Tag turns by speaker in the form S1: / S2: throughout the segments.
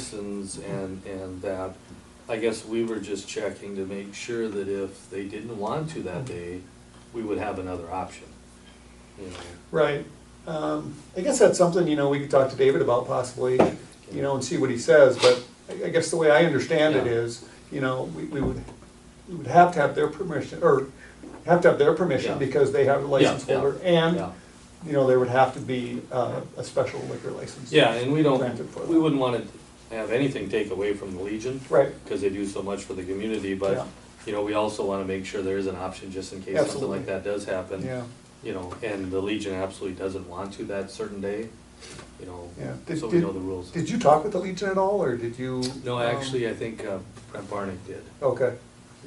S1: license and, and that, I guess we were just checking to make sure that if they didn't want to that day, we would have another option. you know.
S2: Right. Um, I guess that's something, you know, we could talk to David about possibly, you know, and see what he says, but I- I guess the way I understand it
S1: Yeah.
S2: is, you know, we, we would, we would have to have their permission, or have to have their
S1: Yeah.
S2: permission because they have a license
S1: Yeah, yeah,
S2: holder, and,
S1: yeah.
S2: you know, there would have to be, uh, a special liquor license.
S1: Yeah, and we don't,
S2: Granted for
S1: we
S2: that.
S1: wouldn't wanna have anything take away from the Legion,
S2: Right,
S1: cause they do so much for the community,
S2: Yeah.
S1: but, you know, we also wanna make sure there is an option just in case something
S2: Absolutely.
S1: like that does happen.
S2: yeah,
S1: You know, and the Legion absolutely doesn't want to that certain day, you know,
S2: yeah. Did-
S1: so we
S2: did-
S1: know the rules.
S2: Did you talk with the Legion at all, or did you?
S1: No,
S2: um,
S1: actually, I think uh, Brent Barnick did.
S2: Okay,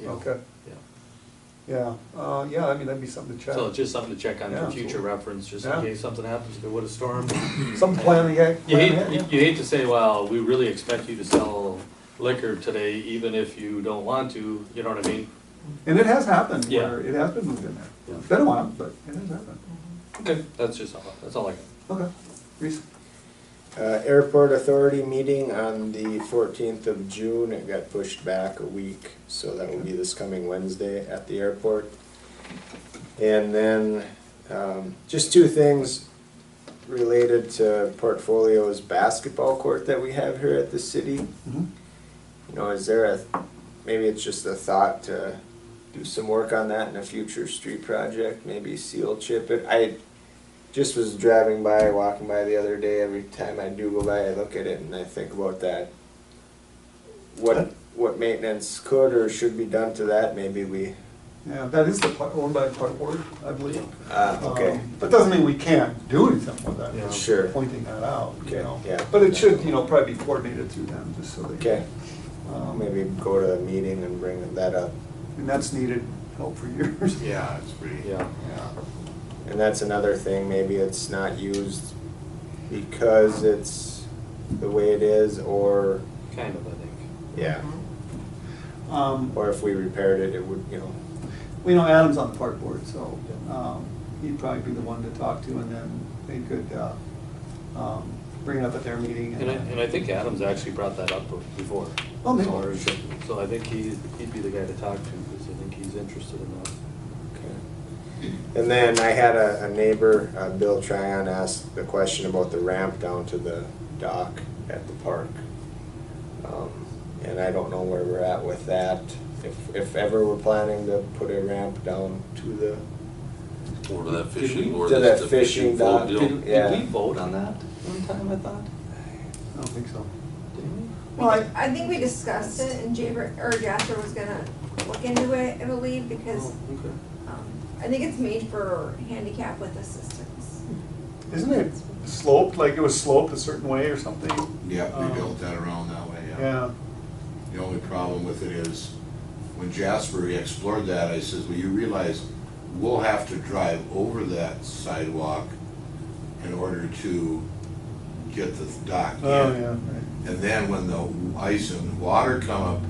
S1: you know,
S2: okay,
S1: Yeah.
S2: yeah, uh, yeah, I mean, that'd be something to check.
S1: So it's just something to check on
S2: Yeah.
S1: for future reference, just in
S2: Yeah.
S1: case something happens, there would a storm.
S2: Some plan ahead.
S1: You
S2: plan ahead,
S1: hate,
S2: yeah.
S1: you hate to say, well, we really expect you to sell liquor today, even if you don't want to, you know what I mean?
S2: And it has happened,
S1: Yeah.
S2: where it has been moved in there.
S1: Yeah.
S2: It's been a while, but it has happened.
S1: Okay, that's just all, that's all I got.
S2: Okay, Reese?
S3: Uh, Airport Authority meeting on the fourteenth of June, it got pushed back a week, so that will be this coming Wednesday at the airport. And then, um, just two things related to Portfolio's basketball court that we have here at the city. You know, is there a, maybe it's just a thought to do some work on that in a future street project, maybe seal chip it. I just was driving by, walking by the other day, every time I do go by, I look at it and I think about that. What, what maintenance could or should be done to that, maybe we,
S2: Yeah, that is the part owned by Park Board, I believe.
S3: uh, okay,
S2: Um, But doesn't mean we can't do anything with that.
S1: Yeah.
S2: I'm
S3: Sure.
S2: Pointing that out, you
S3: Okay,
S2: know.
S3: yeah.
S2: But it should, you know, probably be coordinated through them, just so they.
S3: okay.
S2: um,
S3: Maybe go to a meeting and bring that up.
S2: And that's needed help for years.
S4: Yeah, it's pretty.
S1: Yeah,
S2: Yeah.
S3: And that's another thing, maybe it's not used because it's the way it is, or,
S1: kind of, I think.
S3: yeah,
S2: Um,
S3: or if we repaired it, it would, you know,
S2: We know Adam's on the park board, so
S1: Yeah.
S2: um, he'd probably be the one to talk to, and then they could uh, um, bring it up at their meeting.
S1: And I, and I think Adams actually brought that up before.
S2: Oh, maybe.
S1: So- So I think he, he'd be the guy to talk to, because I think he's interested in that.
S3: Okay. And then I had a, a neighbor, uh, Bill Tryon, ask the question about the ramp down to the dock at the park. Um, And I don't know where we're at with that, if, if ever we're planning to put a ramp down to the,
S4: Or to that
S1: Did
S4: fishing,
S1: we-
S4: or
S3: to
S4: that's
S3: that
S4: the
S3: fishing
S4: fishing
S3: dock,
S4: boat
S1: Did,
S4: deal.
S3: Yeah.
S1: did we vote on that one time, I thought?
S2: I don't think so.
S1: Didn't we?
S2: Well, I,
S5: I think we discussed it and Jaber, or Jasper was gonna look into it, I believe, because,
S1: Oh, okay.
S5: um, I think it's made for handicap with assistance.
S2: Isn't it sloped, like it was sloped a certain way or something?
S4: Yeah,
S2: Um,
S4: we built that around that way, yeah.
S2: Yeah,
S4: The only problem with it is, when Jasper explored that, I says, well, you realize we'll have to drive over that sidewalk in order to get the dock in.
S2: oh, yeah, right.
S4: And then when the ice and water come up,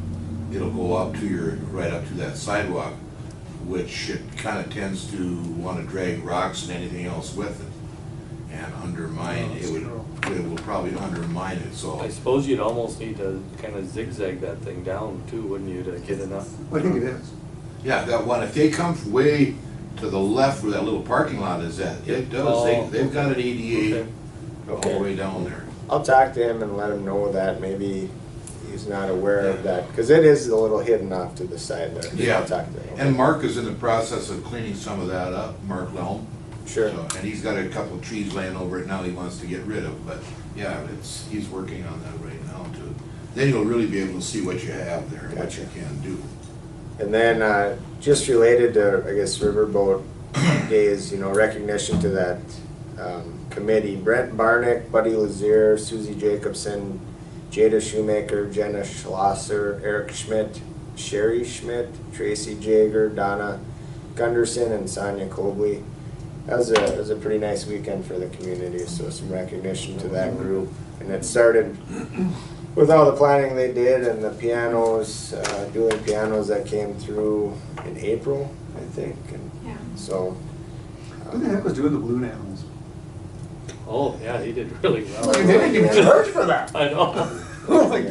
S4: it'll go up to your, right up to that sidewalk, which it kinda tends to wanna drag rocks and anything else with it. And
S2: Oh,
S4: undermine, it would, it will probably undermine it, so.
S1: I suppose you'd almost need to kind of zigzag that thing down too, wouldn't you, to get enough?
S2: I think it is.
S4: Yeah, that one, if they come way to the left where that little parking lot is at, it does,
S1: Oh.
S4: they, they've got an ADA
S1: Okay.
S4: all the way down there.
S3: I'll talk to him and let him know that, maybe he's not aware of that, cause it is a little hidden off to the side there.
S4: Yeah.
S3: I'll talk to him.
S4: And Mark is in the process of cleaning some of that up, Mark Lelm.
S3: Sure,
S4: So, And he's got a couple of trees laying over it now he wants to get rid of, but yeah, it's, he's working on that right now too. Then you'll really be able to see what you have there and what you can do.
S3: And then, uh, just related to, I guess, Riverboat Days, you know, recognition to that, um, committee, Brent Barnick, Buddy Lazier, Susie Jacobson, Jada Shoemaker, Jenna Schlosser, Eric Schmidt, Sherry Schmidt, Tracy Jager, Donna Gunderson, and Sonia Cobley. That was a, it was a pretty nice weekend for the community, so some recognition to that group. And it started with all the planning they did and the pianos, uh, dueling pianos that came through in April, I think, and
S5: Yeah.
S3: so. uh,
S2: Who the heck was doing the balloon animals?
S1: Oh, yeah, he did really well.
S5: Well, you didn't
S2: even charge for that.
S1: I know.
S2: Like,